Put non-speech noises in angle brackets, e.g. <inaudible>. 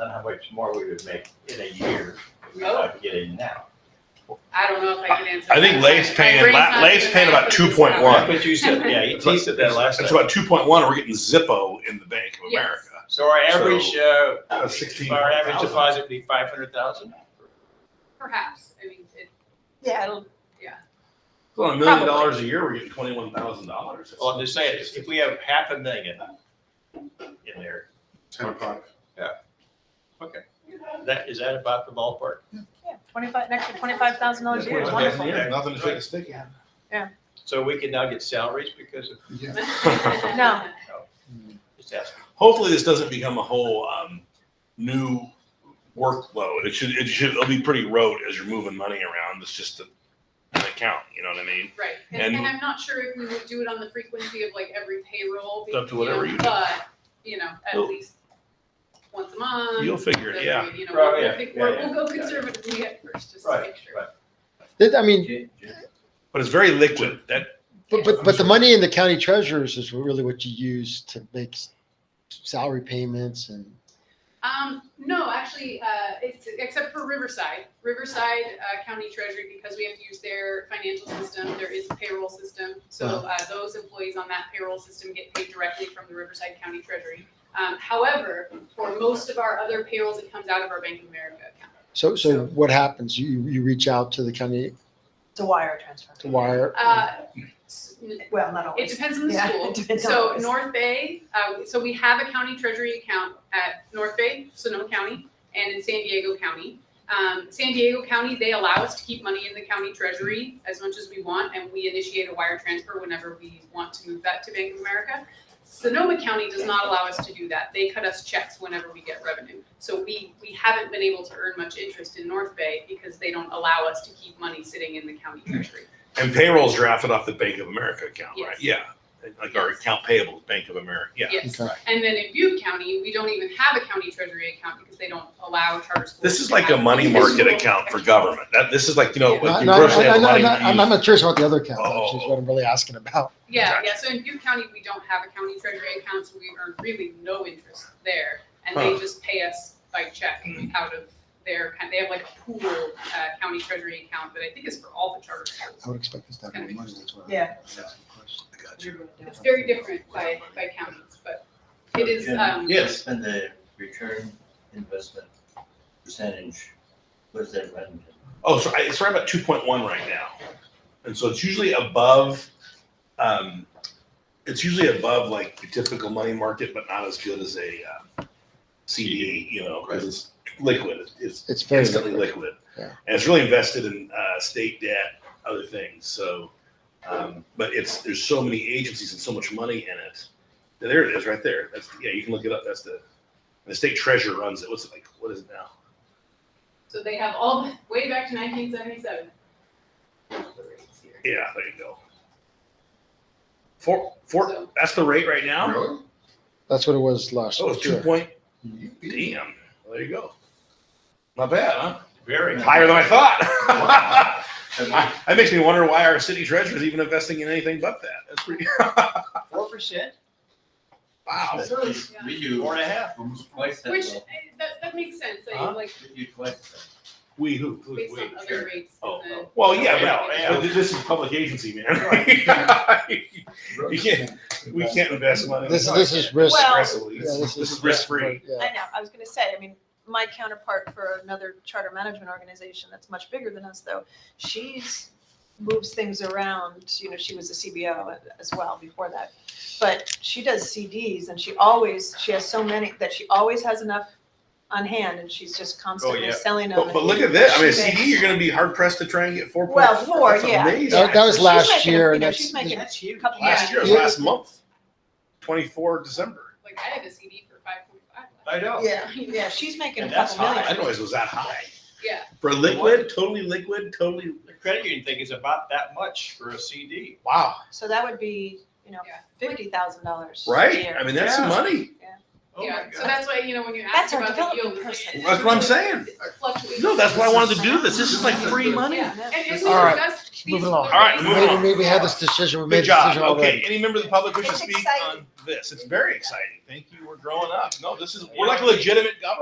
on how much more we would make in a year if we Oh. tried to get in now. I don't know if I can answer. I think that. Lay's My paying- brain's La- not Lay's even paying there. about 2.1. That's what you said, yeah, <laughs> he he said that last It's time. about two point one, we're getting Zippo in the Bank of Yes. America. So our average, uh, That's sixteen. our average deposit would be five hundred thousand? Perhaps, I mean, it, Yeah, it'll, Well, a Probably. million dollars a year, we're getting twenty-one thousand dollars. Oh, Well, I'm just saying, if we have half a million in there, Ten o'clock. that, is that about the ballpark? yeah, twenty-five, next to twenty-five thousand dollars a year is Yeah. wonderful. Nothing to take a stick at. So we can now get salaries because of, Yeah. No. just asking. Hopefully, this doesn't become a whole, um, new workload. It should, it should, it'll be pretty rote as you're moving money around. It's just a- an account, you know what I mean? <laughs> Right, and, And- and I'm not sure if we would do it on the frequency of like every payroll. It's up to whatever know, you do. But, you know, at You'll- least once a month. You'll figure it, every- yeah. You know, Right, we'll, yeah, pick- yeah, we'll- yeah, we'll go yeah. conservatively at first, just to Right, make sure. right. That- I mean, But it's very liquid. That, but, but, but the money in the county treasurers is really what you use to make s- salary payments and Um, no, actually, uh, it's, except for Riverside. Riverside uh, County Treasury, because we have to use their financial system, there is a payroll system. So uh, those employees on that payroll system get paid directly from the Riverside County Treasury. Um, however, for most of our other payrolls, it comes out of our Bank of America account. so, So- so what happens? You, you reach out to the county It's a wire transfer. to wire. Uh, s- Well, not It always. depends on the Yeah, school. it depends on So always. North Bay, uh, so we have a county treasury account at North Bay, Sonoma County, and in San Diego County. Um, San Diego County, they allow us to keep money in the county treasury as much as we want, and we initiate a wire transfer whenever we want to move that to Bank of America. Sonoma County does not allow us to do that. They cut us checks whenever we get revenue. So we, we haven't been able to earn much interest in North Bay because they don't allow us to keep money sitting in the county treasury. and payrolls drafted off the Bank of America account, right? Yes. Yeah. Like our account payable, Bank of America, yeah. Yes. Okay. And then in Butte County, we don't even have a county treasury account because they don't allow charter schools. This is to like a have money individual market account for accounts. government. That, this is like, you know, Yeah. like Not- you not- personally have I'm money. not- I'm you use- not curious about the other county, Oh. which is what I'm really asking about. Yeah, Gotcha. yeah, so in Butte County, we don't have a county treasury account, so we earn really no interest there. And they Huh. Hmm. just pay us by check out of their, kind- they have like a pool, uh, county treasury account that I think is for all the charter schools. I would expect this to have more money. That's why. I Yeah. was asking the question. It's very different by, by counties, but it is, um, Yes. And the return investment percentage, was that run? Oh, so I, it's right about two point one right now, and so it's usually above. Um, it's usually above like the typical money market, but not as good as a uh, CD. You know, because it's liquid. It's It's very instantly liquid. liquid, Yeah. and it's really invested in uh, state debt, other things. So, um, but it's there's so many agencies and so much money in it. There it is, right there. That's yeah. You can look it up. That's the the state treasurer runs it. What's it like? What is it now? so they have all, the way back to nineteen seventy-seven. Yeah, there you go. Four, four. That's the rate right now. Really? That's what it was last Oh, it's two year. point. You- Damn. Mm-hmm. There you go. Not bad, huh? Very. Higher than I thought. I- <laughs> that makes me wonder why our city treasurer is even investing in anything but that. That's pretty. Four percent? Wow. We do Four and a half. almost twice that. Which, well. eh, that, that makes sense, I Huh? mean, like, We do twice that. We who? who- based we. on other rates Oh, in the. Well, yeah, Yeah, but yeah. this is public agency, man. <laughs> You can't- we can't invest money. This, this is risk. Well- aggressively. Yeah, This is risk free. Yeah. I know, I was gonna say, I mean, my counterpart for another charter management organization that's much bigger than us though, she's moves things around, you know, she was a CBO as well before that. But she does CDs and she always, she has so many that she always has enough on hand and she's just constantly yeah. selling them. But, but look at this. I mean, a She CD, makes- you're going to be hard pressed to try and get four point. Well, four, yeah. That, that was She's last making- year you and know, that's, She's making That's a huge. couple. Last year, Yeah. last month, twenty-four December. Like, I had a CD for five point five left. I know. Yeah, yeah, she's making a And that's couple high. million. I didn't realize it was that high. Yeah, For liquid, totally liquid, totally, The credit union thing is about that much for a CD. wow, So that would be, you know, Yeah. fifty thousand dollars. right? I mean, that's some Yeah. money. Oh my yeah, so God. that's why, you know, when you That's ask our about the yield, development it's like- person. That's what I'm saying. it fluctuates. No, that's why I wanted to do this. This is like free money. Yeah, and if we All right, discuss these. moving along. other All right, rates- moving maybe, on. maybe we had this decision, we made Good the job. decision Okay, already. any member of the public wish to It's speak exciting. on this? It's very exciting. Thank you. We're growing up. No, this is, we're like a legitimate government.